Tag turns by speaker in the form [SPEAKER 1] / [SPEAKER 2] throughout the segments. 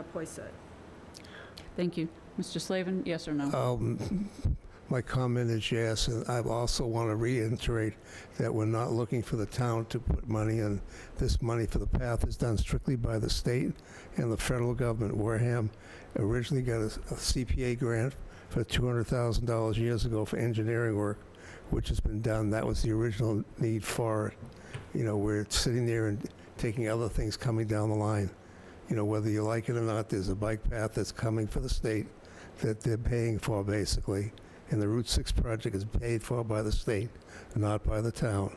[SPEAKER 1] Matipoiset.
[SPEAKER 2] Thank you. Mr. Slavin, yes or no?
[SPEAKER 3] Um, My comment is yes, and I also want to reiterate that we're not looking for the town to put money in. This money for the path is done strictly by the state and the federal government. Wareham originally got a a CPA grant for $200,000 years ago for engineering work, which has been done. That was the original need for it. You know, we're sitting there and taking other things coming down the line. You know, whether you like it or not, there's a bike path that's coming for the state that they're paying for, basically. And the Route 6 project is paid for by the state, not by the town.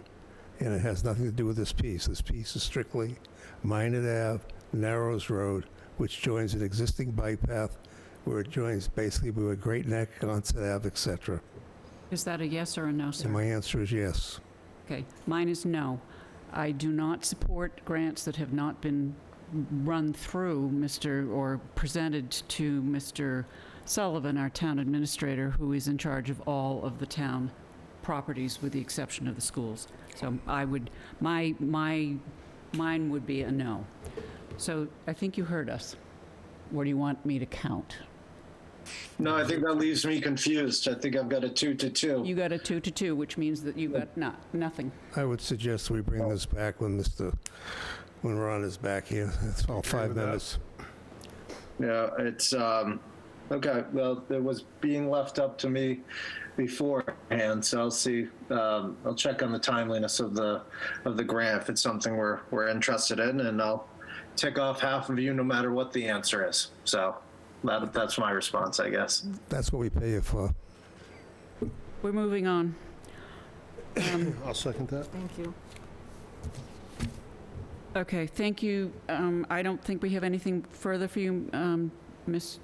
[SPEAKER 3] And it has nothing to do with this piece. This piece is strictly Minot Ave, Narrows Road, which joins an existing bike path where it joins basically with Great Neck, Onset Ave, et cetera.
[SPEAKER 2] Is that a yes or a no,
[SPEAKER 3] And
[SPEAKER 2] sir?
[SPEAKER 3] my answer is yes.
[SPEAKER 2] Okay, mine is no. I do not support grants that have not been run through Mr., or presented to Mr. Sullivan, our town administrator, who is in charge of all of the town properties with the exception of the schools. So I would, my, my, mine would be a no. So I think you heard us. Or do you want me to count?
[SPEAKER 4] No, I think that leaves me confused. I think I've got a two to two.
[SPEAKER 2] You got a two to two, which means that you got not, nothing.
[SPEAKER 3] I would suggest we bring this back when Mr., when Ron is back here. That's all five
[SPEAKER 4] with that.
[SPEAKER 3] minutes.
[SPEAKER 4] Yeah, it's, um, okay, well, it was being left up to me beforehand, so I'll see, um, I'll check on the timeliness of the, of the grant if it's something we're, we're interested in, and I'll tick off half of you no matter what the answer is. So that, that's my response, I guess.
[SPEAKER 3] That's what we pay you for.
[SPEAKER 2] We're moving on. Um,
[SPEAKER 5] I'll second that.
[SPEAKER 1] Thank you.
[SPEAKER 2] Okay, thank you. Um, I don't think we have anything further for you, um, Ms.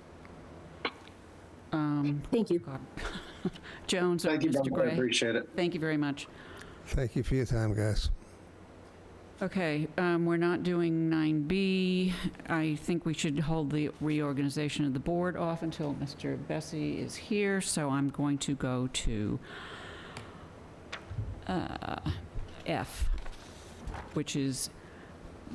[SPEAKER 2] um,
[SPEAKER 6] Thank you.
[SPEAKER 2] God. Jones or
[SPEAKER 4] Thank you,
[SPEAKER 2] Mr.
[SPEAKER 4] Dunbar. I
[SPEAKER 2] Gray.
[SPEAKER 4] appreciate it.
[SPEAKER 2] Thank you very much.
[SPEAKER 3] Thank you for your time, guys.
[SPEAKER 2] Okay, um, we're not doing 9B. I think we should hold the reorganization of the board off until Mr. Bessie is here, so I'm going to go to uh, F, which is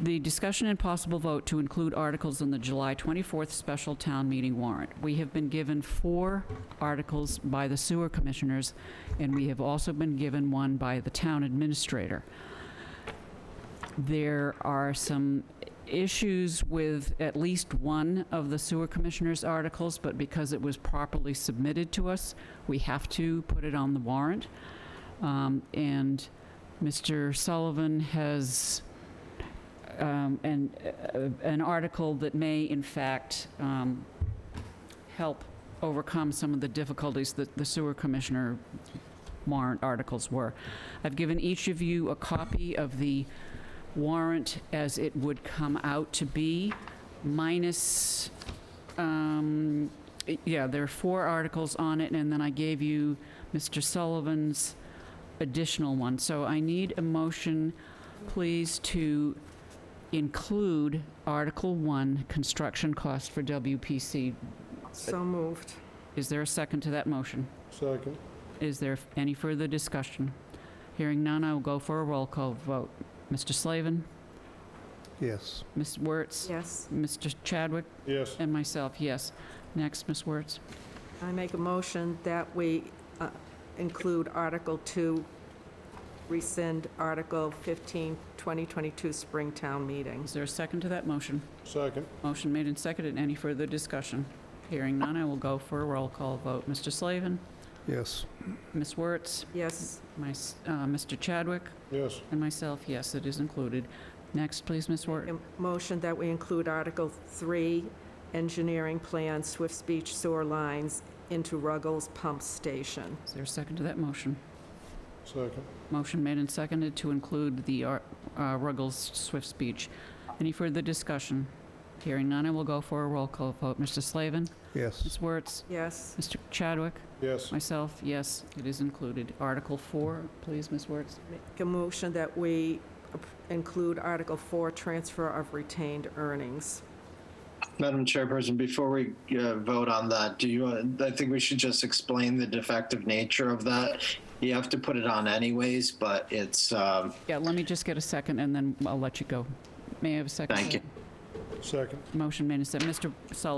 [SPEAKER 2] the discussion and possible vote to include articles in the July 24th special town meeting warrant. We have been given four articles by the sewer commissioners, and we have also been given one by the town administrator there are some issues with at least one of the sewer commissioner's articles, but because it was properly submitted to us, we have to put it on the warrant. Um, And Mr. Sullivan has um, an, uh, an article that may in fact um, help overcome some of the difficulties that the sewer commissioner warrant articles were. I've given each of you a copy of the warrant as it would come out to be, minus, um, y- yeah, there are four articles on it, and then I gave you Mr. Sullivan's additional one. So I need a motion, please, to include Article 1, construction cost for WPC.
[SPEAKER 1] So moved.
[SPEAKER 2] Is there a second to that motion?
[SPEAKER 5] Second.
[SPEAKER 2] Is there any further discussion? Hearing none, I will go for a roll call vote. Mr. Slavin,
[SPEAKER 3] Yes.
[SPEAKER 2] Ms. Wertz,
[SPEAKER 1] Yes.
[SPEAKER 2] Mr. Chadwick,
[SPEAKER 5] Yes.
[SPEAKER 2] and myself, yes. Next, Ms. Wertz.
[SPEAKER 1] I make a motion that we uh, include Article 2, rescind Article 15, 2022 Spring Town Meeting.
[SPEAKER 2] Is there a second to that motion?
[SPEAKER 5] Second.
[SPEAKER 2] Motion made and seconded. Any further discussion? Hearing none, I will go for a roll call vote. Mr. Slavin,
[SPEAKER 3] Yes.
[SPEAKER 2] Ms. Wertz,
[SPEAKER 1] Yes,
[SPEAKER 2] my, s- uh, Mr. Chadwick,
[SPEAKER 5] Yes.
[SPEAKER 2] and myself, yes, it is included. Next, please, Ms. Wertz.
[SPEAKER 1] a motion that we include Article 3, engineering plan Swift Beach sewer lines into Ruggles Pump Station.
[SPEAKER 2] Is there a second to that motion?
[SPEAKER 5] Second.
[SPEAKER 2] Motion made and seconded to include the Ar- uh, Ruggles Swift speech. Any further discussion? Hearing none, I will go for a roll call vote. Mr. Slavin,
[SPEAKER 3] Yes.
[SPEAKER 2] Ms. Wertz,
[SPEAKER 1] Yes,
[SPEAKER 2] Mr. Chadwick,
[SPEAKER 5] Yes.
[SPEAKER 2] myself, yes, it is included. Article 4, please, Ms. Wertz.
[SPEAKER 1] make a motion that we ap- include Article 4, transfer of retained earnings.
[SPEAKER 4] Madam Chairperson, before we uh, vote on that, do you, uh, I think we should just explain the defective nature of that. You have to put it on anyways, but it's, um,
[SPEAKER 2] Yeah, let me just get a second, and then I'll let you go. May I have a second?
[SPEAKER 4] Thank you.
[SPEAKER 5] Second.
[SPEAKER 2] Motion made and seconded. Mr. Sullivan?